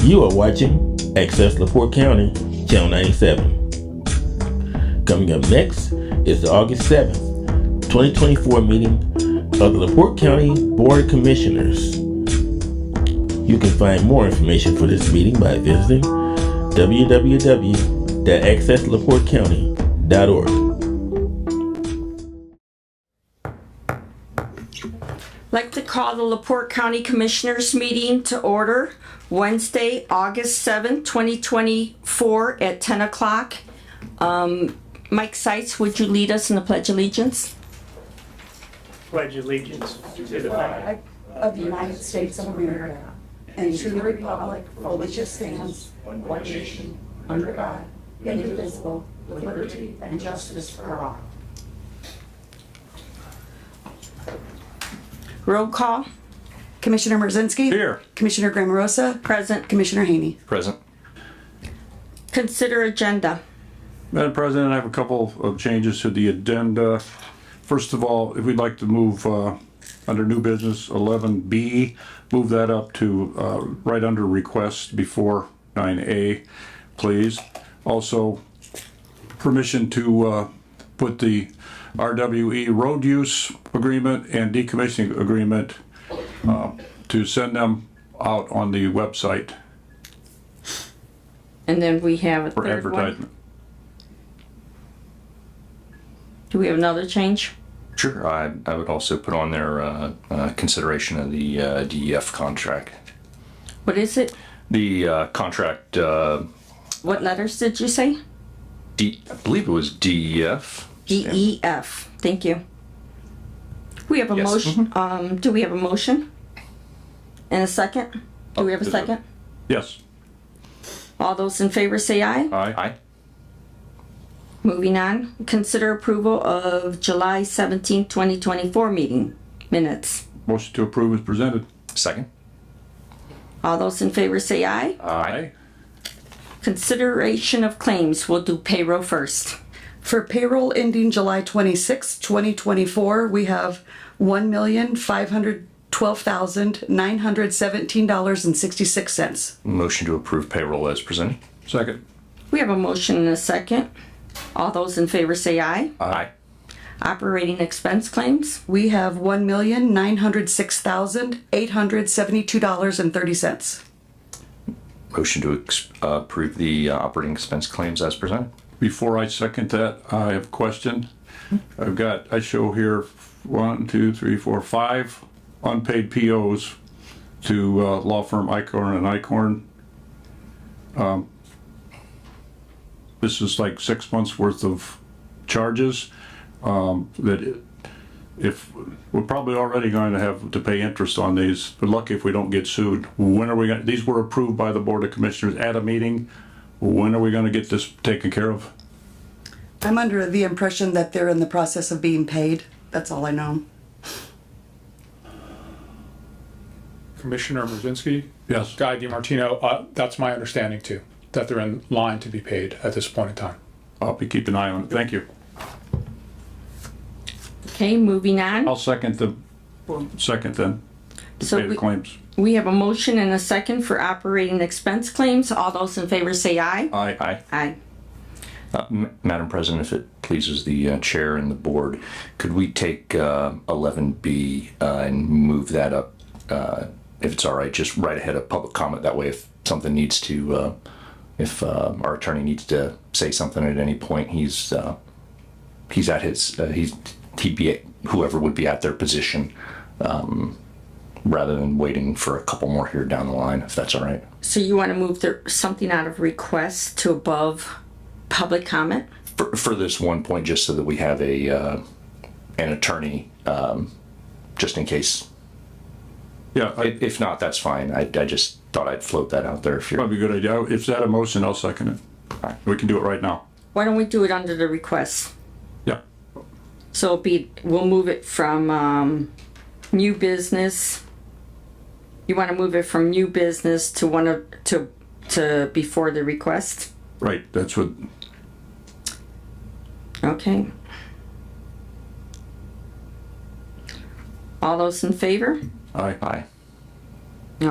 You are watching Access LaPorte County, Channel 97. Coming up next is the August 7th, 2024 meeting of the LaPorte County Board of Commissioners. You can find more information for this meeting by visiting www.accesslaportecounty.org. Like to call the Laporte County Commissioners meeting to order Wednesday, August 7th, 2024 at 10 o'clock. Um, Mike Seitz, would you lead us in the Pledge of Allegiance? pledge allegiance to the flag of the United States of America and to the republic for which it stands, one nation, under God, indivisible, with liberty and justice for all. Roll call, Commissioner Merzinski? Here. Commissioner Grammarosa? present. Commissioner Haney? Present. Consider agenda. Madam President, I have a couple of changes to the agenda. First of all, if we'd like to move, uh, under new business eleven B, move that up to, uh, right under request before nine A, please. Also, permission to, uh, put the RWE road use agreement and decommissioning agreement, uh, to send them out on the website And then we have a for third one. advertisement. Do we have another change? Sure, I, Uh, I would also put on their uh, uh, consideration of the uh, DEF contract. What is it? The uh, contract, uh, What letters did you say? D, I believe it was E DEF. DEF. E Thank you. We have a Yes. motion, Mm-hmm. um, do we have a motion? And a second? Do we have a there's a- second? Yes, All those in favor say aye. aye. Aye. Moving on, consider approval of July 17, 2024 meeting minutes. Motion to approve is presented. Second. All those in favor say aye. Aye. Consideration of claims, we'll do payroll first. For payroll ending July 26, 2024, we have $1,512,917.66. Motion to approve payroll as presented. Second. We have a motion and a second. All those in favor say aye. Aye. Operating expense claims, We have $1,906,872.30. Motion to ex- uh, approve the uh, operating expense claims as presented. Before I second that, I have a question. I've got, I show here one, two, three, four, five unpaid POs to uh, law firm Icorn and Icorn. Um, This is like six months worth of charges um, that if, we're probably already going to have to pay interest on these. We're lucky if we don't get sued. When are we going, to these were approved by the Board of Commissioners at a meeting. When are we going to get this taken care of? I'm under the impression that they're in the process of being paid. That's all I know. Commissioner Merzinski, Yes. Guy DiMartino, uh, that's my understanding too, that they're in line to be paid at this point in time. I'll be keeping an eye on it. Thank you. okay, moving on. I'll second the, second then, to So pay the we, claims. we have a motion and a second for operating expense claims. All those in favor say aye. Aye. Aye. Aye. Uh, M- Madam President, if it pleases the uh, chair and the board, could we take uh, 11B uh, and move that up, uh, if it's all right, just right ahead of public comment? That way, if something needs to, uh, if uh, our attorney needs to say something at any point, he's, uh, he's at his, uh, he's, he'd be, at- whoever would be at their position, um, rather than waiting for a couple more here down the line, if that's all right. So you want to move the, something out of request to above public comment? for, for this one point, just so that we have a uh, an attorney, um, just in case. Yeah, I- I- If not, that's fine. I, I just thought I'd float that out there. If you're probably a good idea. If that a motion, I'll second it. We can do it right now. Why don't we do it under the request? Yeah. So it'll be, we'll move it from, um, new business. You want to move it from new business to one of, to, to before the request? Right, that's what, Okay. All those in favor? aye. aye,